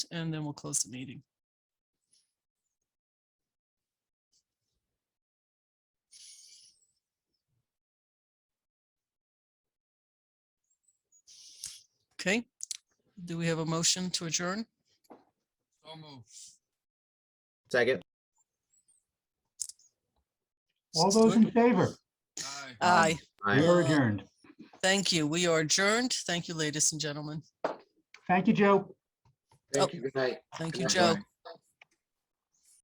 and then we'll close the meeting. Okay, do we have a motion to adjourn? So moved. Second. All those in favor, Aye. Aye, we Aye. are adjourned. thank you. We are adjourned. Thank you, ladies and gentlemen. Thank you, Joe. Thank you. Good night. Oh, Thank Good you, night, Joe. Brian.